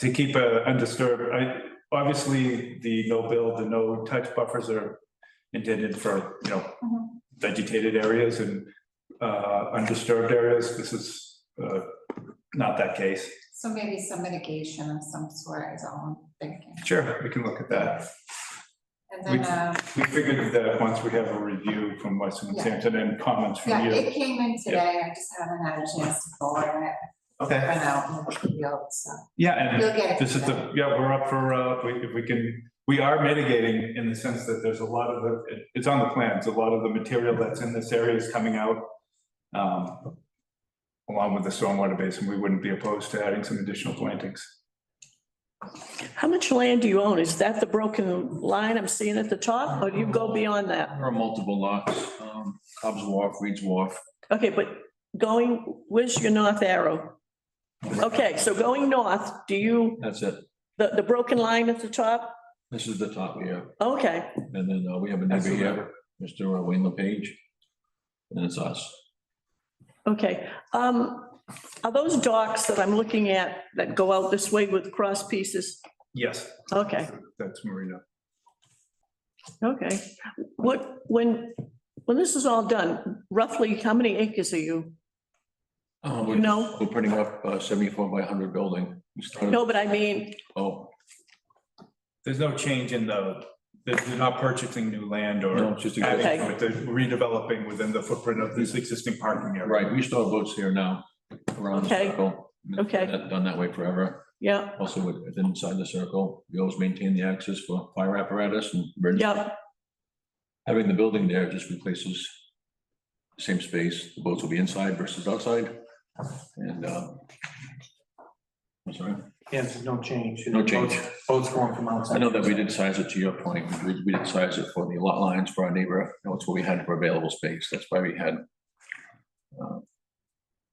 to keep uh, undisturbed, I, obviously, the no build, the no touch buffers are intended for, you know, Mhm. vegetated areas and uh, undisturbed areas. This is uh, not that case. So maybe some mitigation of some sort is all I'm thinking. Sure. We can look at that. And then, We- uh, We figured that once we have a review from Weston and Yeah. Sampson and comments from yeah, you. it came in today, I just haven't had a chance to forward it, I Okay. went out in the field, so Yeah, and you'll get it. This is today. the, yeah, we're up for, uh, we, if we can, we are mitigating in the sense that there's a lot of, the it- it's on the plans, a lot of the material that's in this area is coming out. Um, along with the stormwater basin, we wouldn't be opposed to adding some additional plantings. How much land do you own? Is that the broken line I'm seeing at the top, or do you go beyond that? There are multiple lots, um, Cobb's Wharf, Reed's Wharf. Okay, but going, where's your north arrow? Okay, so going north, do you, That's it. the, the broken line at the top? This is the top here. Okay, And then uh, we have a neighbor here, Mr. Wayne LePage. And it's us. okay. Um, are those docks that I'm looking at that go out this way with cross pieces? Yes. Okay. That's Marina. Okay, what, when, when this is all done, roughly how many acres are you? Uh, You we're- know? We're putting up uh, seventy-four by hundred building. We started- No, but I mean, Oh, There's no change in the, that they're not purchasing new land no, or it's just, a- Okay. adding, but they're redeveloping within the footprint of this existing parking area. right, we still have boats here now. around the Okay. circle. Okay. That- Done that way forever. yeah, Also, with- within inside the circle, we always maintain the access for fire apparatus and emergency yeah, Having the building there just replaces the same space, the boats will be inside versus outside, and, uh, I'm sorry, Yes, no change. No change. Boats- Boats going from outside. I know that we did size it to your point, we, we did size it for the lot lines for our neighbor, that's what we had for available space, that's why we had uh,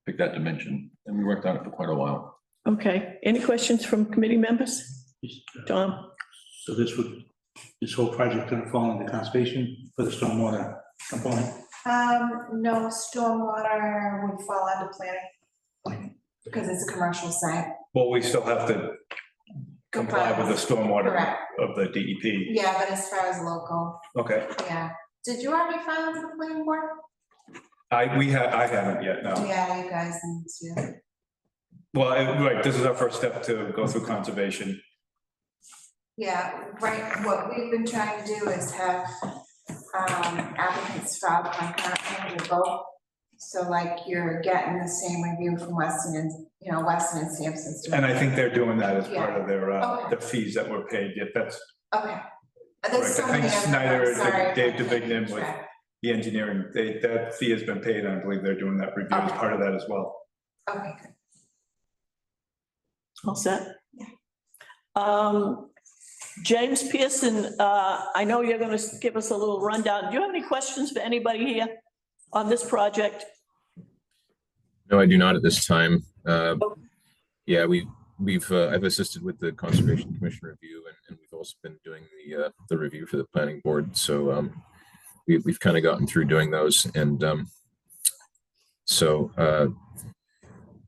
picked that dimension, and we worked on it for quite a while. okay. Any questions from committee members? Tom, So this would, this whole project gonna fall under conservation for the stormwater component? Um, no, stormwater would fall under planning. Because it's a commercial site. Well, we still have to comply with the stormwater Correct, of the DEP. yeah, but as far as local, Okay, yeah. Did you already file for the planning board? I, we have, I haven't yet, no. Yeah, you guys need to. Well, it- right, this is our first step to go through conservation. Yeah, right, what we've been trying to do is have um, applicants file concurrent with your vote. So like you're getting the same review from Weston and, you know, Weston and Sampson's. doing And I it. think they're doing that as part of their, uh, Okay. the fees that were paid, yep, that's Okay. Uh, There's correct. so I many think other- I'm Snyder, sorry, Dave I'm getting Dubignon was, track. the engineering, they, that fee has been paid, and I believe they're doing that review as Okay. part of that as well. Okay, good. all set? Yeah. Um, James Pearson, uh, I know you're gonna give us a little rundown. Do you have any questions for anybody here on this project? No, I do not at this time. Uh, Yeah, we, we've, uh, I've assisted with the Conservation Commission review and, and we've also been doing the, uh, the review for the planning board. So um, we, we've kind of gotten through doing those and um, so uh,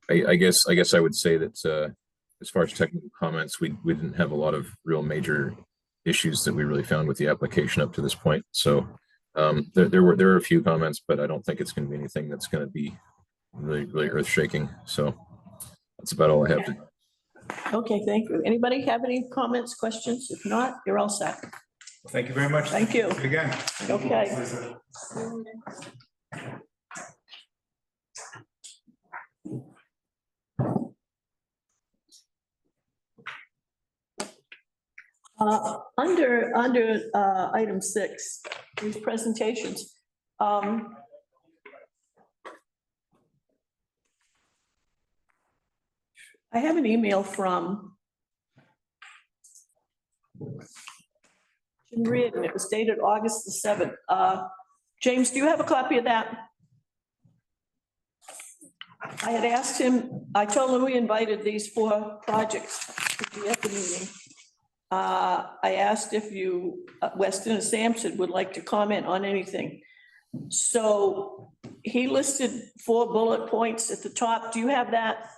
I, I guess, I guess I would say that uh, as far as technical comments, we, we didn't have a lot of real major issues that we really found with the application up to this point. So um, there, there were, there are a few comments, but I don't think it's going to be anything that's going to be really, really earth shaking. So that's about all I have to Okay, thank you. Anybody have any comments, questions? If not, you're all set. Thank you very much. Thank you. Again. Okay. Uh, Under, under uh, item six, these presentations. um, I have an email from Jim Reed, and it was dated August the 7th. Uh, James, do you have a copy of that? I had asked him, I told him we invited these four projects to be at the meeting. Uh, I asked if you, uh, Weston and Sampson would like to comment on anything. So he listed four bullet points at the top. Do you have that?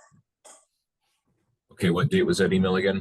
Okay, what date was that email again?